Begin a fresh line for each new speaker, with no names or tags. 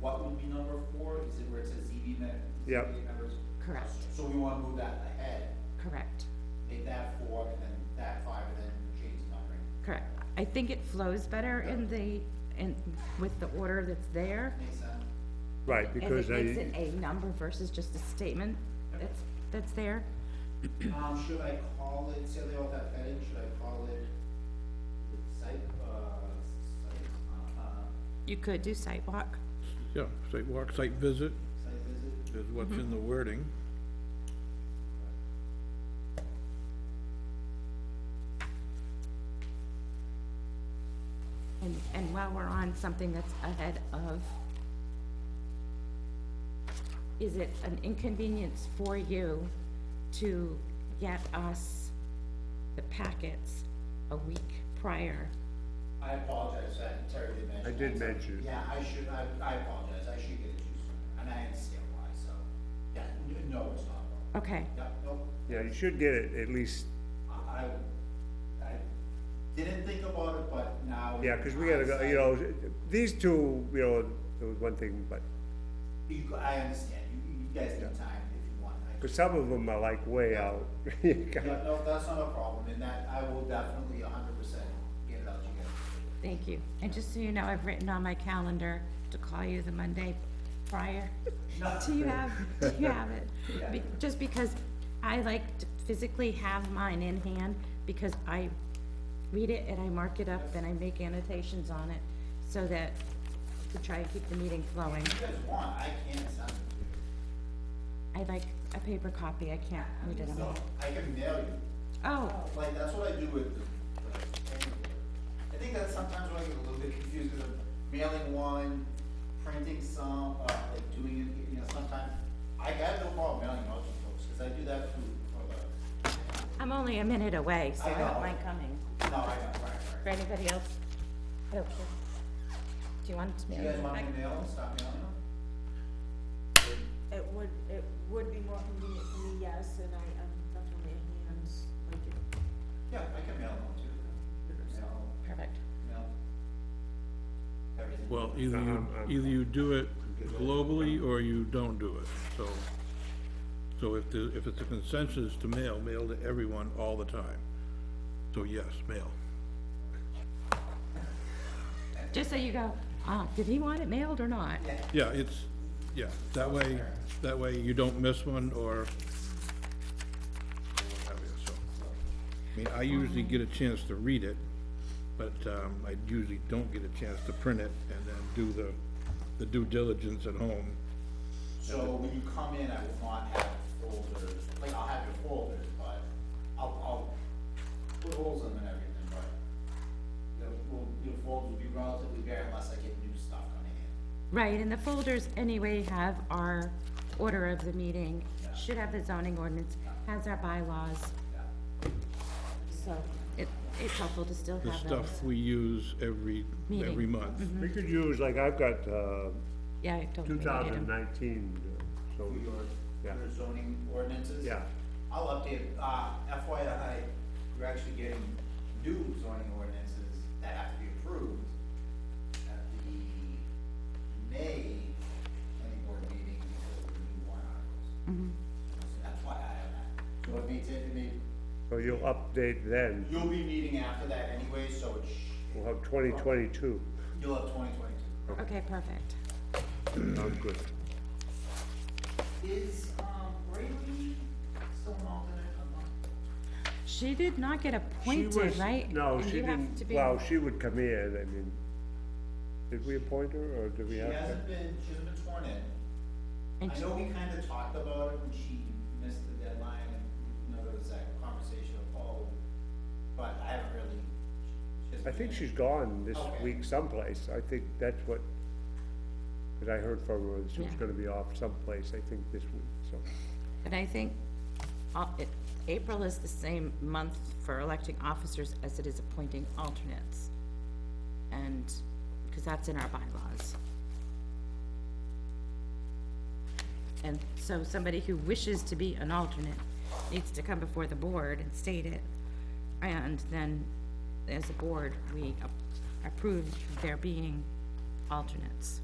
what would be number four, is it where it says ZB men?
Yep.
ZB members?
Correct.
So we wanna move that ahead,
Correct,
make that four, and then that five, and then change the numbering.
correct. I think it flows better in the, in, with the order that's there.
Makes sense?
right,
and
because
it makes
I,
it a number versus just a statement that's, that's there.
Um, should I call it, say they all have heading, should I call it the site, uh, site, uh, uh,
You could do sidewalk.
Yeah, site walk, site visit
site visit?
is what's in
Mm-hmm.
the wording.
And, and while we're on something that's ahead of, is it an inconvenience for you to get us the packets a week prior?
I apologize, I entirely mentioned.
I did
that.
mention it.
Yeah, I should, I, I apologize, I should get it to you sooner, and I understand why, so, yeah, n- no, it's not wrong.
Okay,
Yeah, no,
yeah, you should get it at least,
I, I, I didn't think about it, but now.
yeah, because we gotta go, you know, these two, you know, there was one thing, but,
You, I understand, you, you guys need time if you want. I-
because some of them are like way out. You
Yeah,
got-
no, that's not a problem, and that, I will definitely a hundred percent get it out to you guys.
thank you. And just so you know, I've written on my calendar to call you the Monday prior.
Not-
Do you have, do you have it? Be- Just because I like to physically have mine in hand, because I read it and I mark it up and I make annotations on it, so that we try and keep the meeting flowing.
If you guys want, I can send it to you.
I like a paper copy, I can't read it
So
all.
I can mail you.
Oh,
Like, that's what I do with the, the, paperwork. I think that's sometimes where I get a little bit confused, because I'm mailing one, printing some, uh, like doing it, you know, sometimes. I have no problem mailing out to folks, because I do that through, uh,
I'm only a minute away, so I
I know.
don't mind coming.
no, I know, right, right.
For anybody else? I don't care. Do you want to
Do
mail
you guys
it
want me
back?
to mail them, stop mailing them?
It would, it would be more convenient for me, yes, and I, I'm definitely a hands, like, it-
Yeah, I can mail them too. Mail,
Perfect.
mail. Everything.
Well, either you,
Um, um,
either you do it globally or you don't do it, so. So if the, if it's a consensus to mail, mail to everyone all the time. So yes, mail.
Just so you go, uh, did he want it mailed or not?
Yeah, it's, yeah, that way, that way you don't miss one or. so. I mean, I usually get a chance to read it, but, um, I usually don't get a chance to print it and then do the, the due diligence at home.
So when you come in, I will not have folders, like, I'll have your folders, but I'll, I'll put holes in them and everything, but your, will- your folders will be relatively bare unless I get new stuff coming in.
Right, and the folders anyway have our order of the meeting, should have the zoning ordinance, has our bylaws. So it, it's helpful to still
The
have those.
stuff we use every, every
Meeting. Mm-hmm.
month.
We could use, like, I've got, uh,
Yeah, I don't
two
think I need 'em.
thousand nineteen, so,
For your,
Yeah.
your zoning ordinances?
yeah,
I'll update, uh, FYI, we're actually getting new zoning ordinances that have to be approved at the May planning board meeting because of the new warrant articles. So That's why I have that. So it may take, it may,
so you'll update then,
you'll be meeting after that anyway, so it sh-
we'll have twenty twenty-two,
you'll have twenty twenty-two.
Okay, perfect.
sounds good.
Is, um, Brady still an alternate? I'm not-
She did not get
She
appointed,
was-
right?
No,
And
she
you have to
didn't,
be-
well, she would come in, I mean, did we appoint her, or did we
She
have? to?
hasn't been, she hasn't been sworn in.
and
I
she-
know we kind of talked about it when she missed the deadline, and, you know, there was that conversation of, oh, but I haven't really. she hasn't
I think
been-
she's gone this
Okay.
week someplace, I think that's what, because I heard from her, that she was
Yeah.
gonna be off someplace, I think this week, so.
And I think, uh, it, April is the same month for electing officers as it is appointing alternates. And, because that's in our bylaws. And so somebody who wishes to be an alternate needs to come before the board and state it. And then, as a board, we ap- approve there being alternates.